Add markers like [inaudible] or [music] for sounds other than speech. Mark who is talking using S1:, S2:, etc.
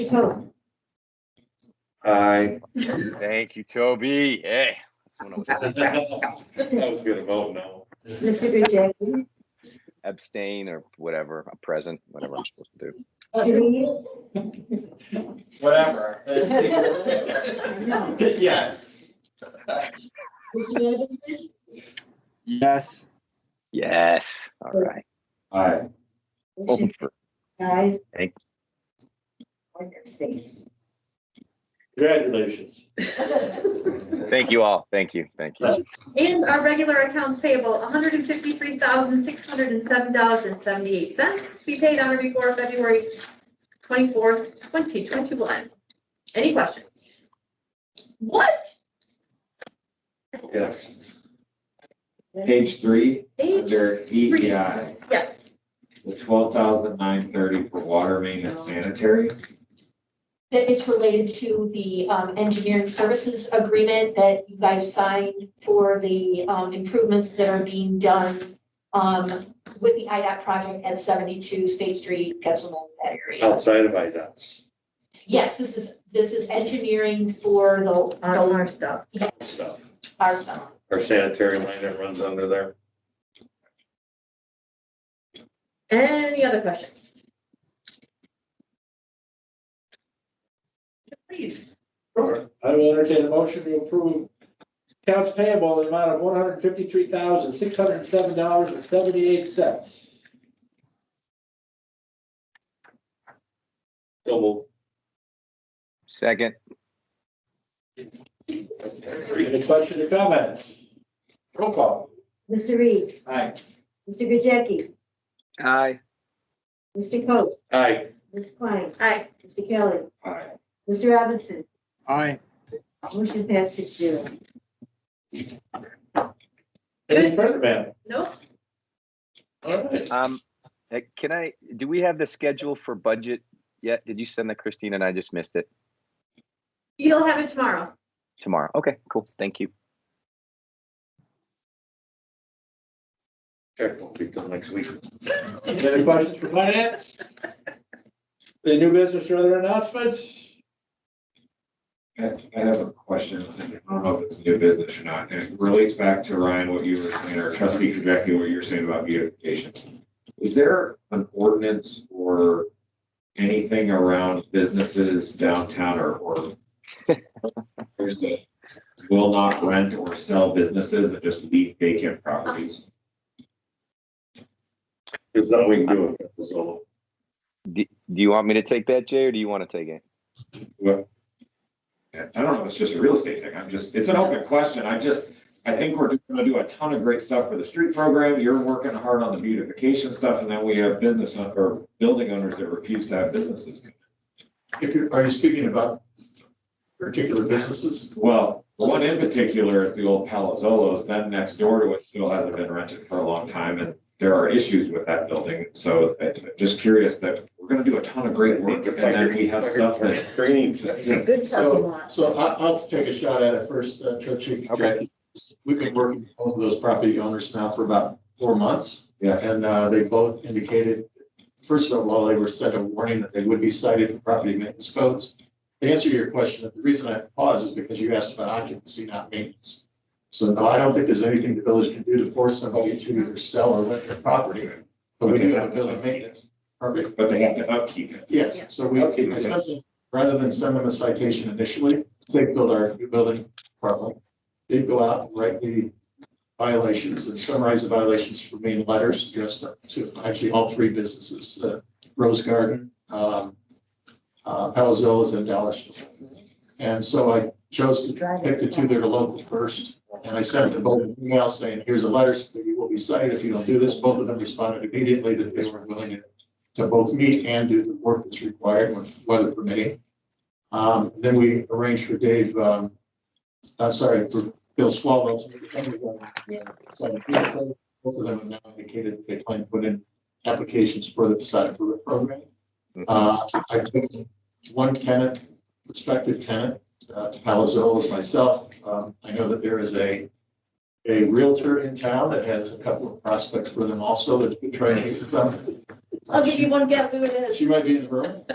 S1: Opposed?
S2: Aye.
S3: Thank you, Toby. Yeah. that's what I was- [laughs]
S2: I was gonna vote no.
S1: Mr. Gajeki?
S3: Abstain or whatever, a present, whatever I'm supposed to do.
S1: Lee?
S2: [laughs]
S4: Whatever.
S1: No.
S4: Yes.
S1: Mr. Anderson?
S5: Yes.
S3: Yes, all right.
S2: Aye.
S3: Open
S1: Motion
S3: for-
S1: Aye.
S3: Thank-
S1: One abstention.
S4: Congratulations.
S3: Thank you all. Thank you, thank you.
S6: And our regular accounts payable, $153,607.78 to be paid on or before February 24th, 2021. Any questions? What?
S2: Yes. Page three,
S6: Page
S2: under
S6: three.
S2: EPI,
S6: Yes,
S2: the twelve thousand nine thirty for water main and sanitary.
S7: That it's related to the um, engineering services agreement that you guys signed for the um, improvements that are being done um, with the IDOT project at 72 State Street, Getzelman, that area.
S2: Outside of IDOTs.
S7: Yes, this is, this is engineering for the-
S6: on
S7: the,
S6: our stuff.
S7: yes,
S2: Stuff.
S7: our stuff.
S2: Our sanitary line that runs under there.
S6: Any other questions? Please.
S4: I will entertain a motion to approve accounts payable in the amount of one hundred fifty-three thousand, six hundred and seven dollars and seventy-eight cents.
S2: Double.
S3: Second,
S4: Any questions or comments? Roll call.
S1: Mr. Reed?
S4: Aye.
S1: Mr. Gajeki?
S3: aye.
S1: Mr. Coe?
S2: Aye.
S1: Ms. Klein?
S6: Aye.
S1: Mr. Kelly?
S2: Aye.
S1: Mr. Robinson?
S5: Aye.
S1: Motion passed six zero.
S4: Any further, ma'am?
S6: Nope.
S4: All right.
S3: Um, eh, can I, do we have the schedule for budget yet? Did you send that Christine and I just missed it
S6: You'll have it tomorrow.
S3: tomorrow? Okay, cool. Thank you.
S2: Check will be done next week.
S4: Any other questions for finance? Any new business or other announcements?
S2: I I have a question. I don't know if it's new business or not. and It relates back to Ryan, what you were saying, or trustee Kubeki, what you were saying about beautification. Is there an ordinance or anything around businesses downtown or, or there's the will not rent or sell businesses and just leave vacant properties? There's nothing we can do with this all.
S3: Do, do you want me to take that, Jay, or do you want to take it?
S2: Well, I don't know, it's just a real estate thing, I'm just, it's an open question, I just, I think we're just gonna do a ton of great stuff for the street program, you're working hard on the beautification stuff, and then we have business, own- or building owners that refuse to have businesses.
S8: If you're, are you speaking about particular businesses?
S2: Well, the one in particular is the old Palazzolos, then next door to it still hasn't been rented for a long time, and there are issues with that building, so I- I'm just curious that we're gonna do a ton of great work, and then we have stuff that.
S1: Good talking lot.
S8: So I, I'll take a shot at it first, uh, Trustee
S3: Okay.
S8: Jackie. We've been working with both of those property owners now for about four months.
S2: Yeah.
S8: And, uh, they both indicated, first of all, they were sent a warning that they would be cited for property maintenance codes. To answer your question, the reason I paused is because you asked about occupancy, not maintenance. So no, I don't think there's anything the village can do to force somebody to either sell or rent their property. But we do have a building maintenance permit
S2: But they have to upkeep it.
S6: Yeah.
S8: Yes, so we,
S2: Okay.
S8: it's something, rather than send them a citation initially, say build our new building problem. They'd go out and write the violations and summarize the violations for me in letters addressed to actually all three businesses, uh, Rose Garden, um, uh, Palazzola's and Dollar Store. And so I chose to pick the two that are local first, and I sent them both an email saying, here's a letter, so you will be cited if you don't do this. Both of them responded immediately that they were willing to to both meet and do the work that's required when weather permitting. Um, then we arranged for Dave, um, I'm sorry, for Bill Swallow to meet the company on the 17th. Both of them have now indicated that they plan to put in applications for the Poseidon Improvement Program. Uh, I took one tenant, prospective tenant, uh, to Palazzolo with myself. Um, I know that there is a, a realtor in town that has a couple of prospects for them also that we try to meet with them.
S6: I'll give you one guess who it is.
S8: She might be in the room.